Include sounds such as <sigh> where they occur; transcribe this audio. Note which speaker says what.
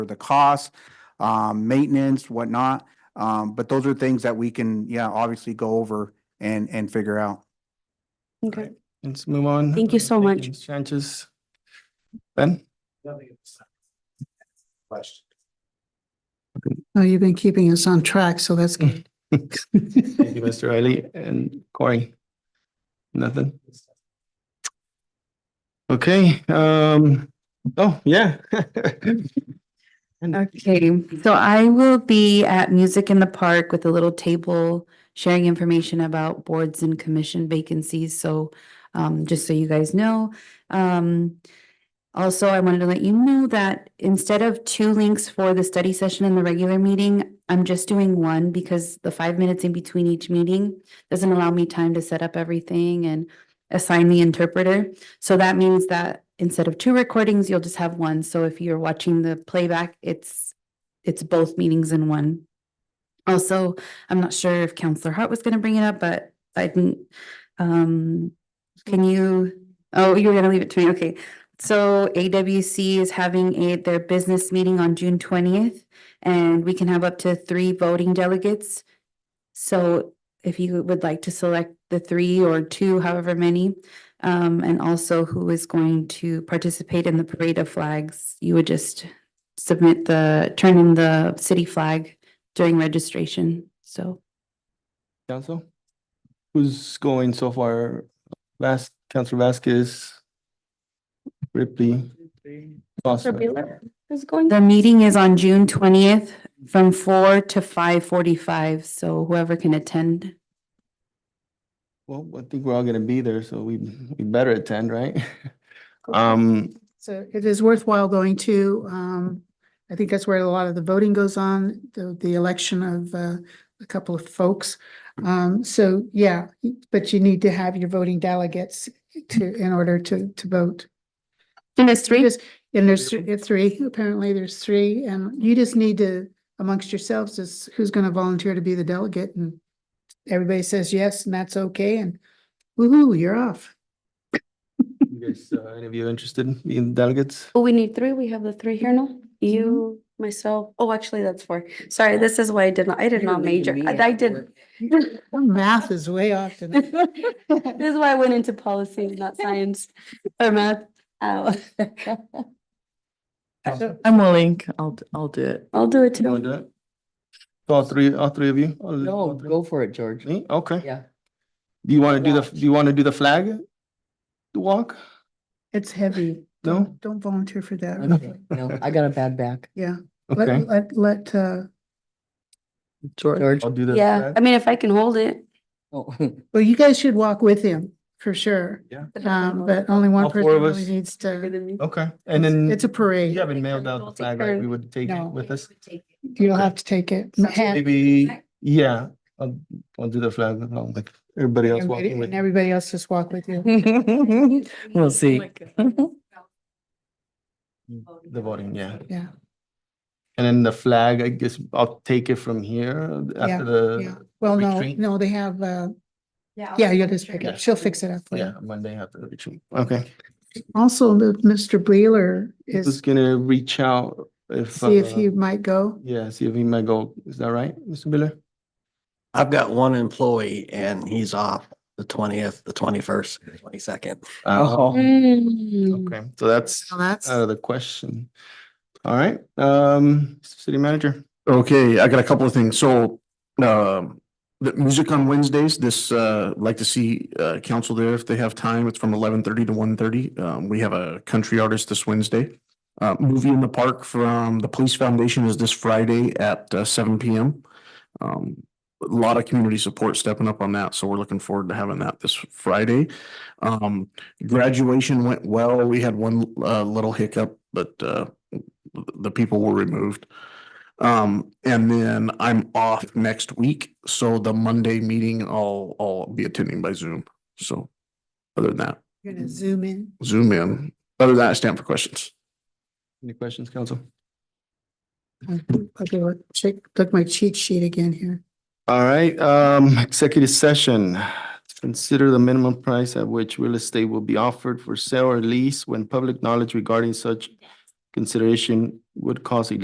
Speaker 1: for the cost, um, maintenance, whatnot. Um, but those are things that we can, yeah, obviously go over and, and figure out.
Speaker 2: Okay.
Speaker 3: Right. Let's move on.
Speaker 2: Thank you so much.
Speaker 3: Ms. Sanchez. Ben? <laughs>
Speaker 1: Question.
Speaker 4: No, Oh, you've been keeping us on track, so that's good.
Speaker 3: Thank you, Mr. Riley and Corey. Nothing? Okay, um, oh, yeah. <laughs>
Speaker 2: Okay, so I will be at Music in the Park with a little table sharing information about boards and commission vacancies, so um just so you guys know. Um also, I wanted to let you know that instead of two links for the study session and the regular meeting, I'm just doing one because the five minutes in between each meeting doesn't allow me time to set up everything and assign the interpreter. So that means that instead of two recordings, you'll just have one. So if you're watching the playback, it's, it's both meetings in one. Also, I'm not sure if Counselor Hart was gonna bring it up, but I didn't, um, can you, oh, you're gonna leave it to me, okay. So AWC is having a, their business meeting on June twentieth, and we can have up to three voting delegates. So if you would like to select the three or two, however many, um, and also who is going to participate in the parade of flags. You would just submit the, turn in the city flag during registration, so.
Speaker 3: Council? Who's going so far? Last, Council Vasquez? Ripley? Foster.
Speaker 2: The meeting is on June twentieth from four to five forty-five, so whoever can attend.
Speaker 3: Well, I think we're all gonna be there, so we, we better attend, right? Um,
Speaker 4: So it is worthwhile going to, um, I think that's where a lot of the voting goes on, the, the election of, uh, a couple of folks. Um, so yeah, but you need to have your voting delegates to, in order to, to vote.
Speaker 2: And it's three?
Speaker 4: Just- And there's thr- uh, three, apparently there's three, and you just need to amongst yourselves is who's gonna volunteer to be the delegate and everybody says yes and that's okay and woo-hoo, you're off.
Speaker 3: you guys, uh, any of you interested in delegates?
Speaker 5: Oh, we need three. We have the three here now. You,
Speaker 2: Mm-hmm.
Speaker 5: myself. Oh, actually, that's four. Sorry, this is why I did not, I did not major. I I did.
Speaker 4: Math is way off tonight.
Speaker 5: <laughs> This is why I went into policy, not science or
Speaker 3: <laughs>
Speaker 5: math. Ow.
Speaker 6: I'm willing. I'll, d- I'll do it.
Speaker 5: I'll do it
Speaker 3: You
Speaker 5: too.
Speaker 3: wanna do it? All three, all three of you? All-
Speaker 6: No,
Speaker 3: all three?
Speaker 6: go for it, George.
Speaker 3: Me? Okay.
Speaker 6: Yeah.
Speaker 3: Do you wanna do the,
Speaker 6: Watch.
Speaker 3: do you wanna do the flag? Walk?
Speaker 4: It's heavy.
Speaker 3: No?
Speaker 4: Don't- Don't volunteer for that.
Speaker 6: Okay, No, I got a bad back.
Speaker 4: Yeah,
Speaker 3: Okay.
Speaker 4: let, let, let, uh,
Speaker 6: George. <laughs>
Speaker 3: I'll do the.
Speaker 5: Yeah, I
Speaker 3: flag.
Speaker 5: mean, if I can hold it.
Speaker 6: Oh, <laughs>
Speaker 4: well, you guys should walk with him for sure.
Speaker 5: if I can
Speaker 4: Um,
Speaker 5: hold
Speaker 4: but
Speaker 5: it,
Speaker 4: only
Speaker 3: All
Speaker 4: one
Speaker 3: four
Speaker 4: person
Speaker 3: of
Speaker 4: really
Speaker 3: us.
Speaker 4: needs
Speaker 5: bigger
Speaker 4: to.
Speaker 5: than me.
Speaker 3: Okay, and then.
Speaker 4: It's a
Speaker 3: You
Speaker 4: parade.
Speaker 3: haven't mailed out the
Speaker 5: We'll take
Speaker 3: flag, right?
Speaker 5: turns.
Speaker 3: We would take
Speaker 4: No.
Speaker 3: it with us.
Speaker 4: You'll
Speaker 5: <laughs>
Speaker 4: have to take it. Hand-
Speaker 3: Maybe, yeah, I'll, I'll do the flag along with um, everybody else walking with.
Speaker 4: And everybody else just walk with you.
Speaker 6: We'll see.
Speaker 5: <laughs>
Speaker 3: The voting, yeah.
Speaker 4: Yeah.
Speaker 3: And then the flag, I guess I'll take it from here after
Speaker 4: Yeah,
Speaker 3: the,
Speaker 4: well, no,
Speaker 3: retreat?
Speaker 4: no, they have, uh, yeah, you'll just pick
Speaker 3: Yeah.
Speaker 4: up. She'll fix it up. for you.
Speaker 3: yeah, Monday after the retreat. Okay.
Speaker 4: Also, the- Mr. Breeler
Speaker 3: Just
Speaker 4: is,
Speaker 3: gonna reach out if.
Speaker 4: see if
Speaker 3: uh,
Speaker 4: he might go.
Speaker 3: Yeah, see if he might go. Is that right, Mr. Miller?
Speaker 7: I've got one employee and he's off the twentieth, the twenty-first, twenty-second.
Speaker 4: Oh.
Speaker 6: Oh.
Speaker 3: Uh,
Speaker 5: Mm.
Speaker 3: Okay, so that's
Speaker 4: Now that's.
Speaker 3: out of the question. All right, um, city manager.
Speaker 8: Okay, I got a couple of things. So, um, the music on Wednesdays, this, uh, like to see, uh, council there if they have time. It's from eleven thirty to one thirty. Um, we have a country artist this Wednesday. Uh, movie in the park from the Police Foundation is this Friday at uh, seven P M. Um, a lot of community support stepping up on that, so we're looking forward to having that this Friday. Um, graduation went well. We had one, uh, little hiccup, but, uh, the people were removed. Um, and then I'm off next week, so the Monday meeting, I'll, I'll be attending by Zoom, so. Other than that,
Speaker 4: You're gonna zoom in.
Speaker 8: Zoom in, other than that, I stand for questions.
Speaker 3: Any questions, council?
Speaker 4: Okay, look, check, look my cheat sheet again here.
Speaker 3: All right, um, executive session. Consider the minimum price at which real estate will be offered for sale or lease when public knowledge regarding such consideration would cause a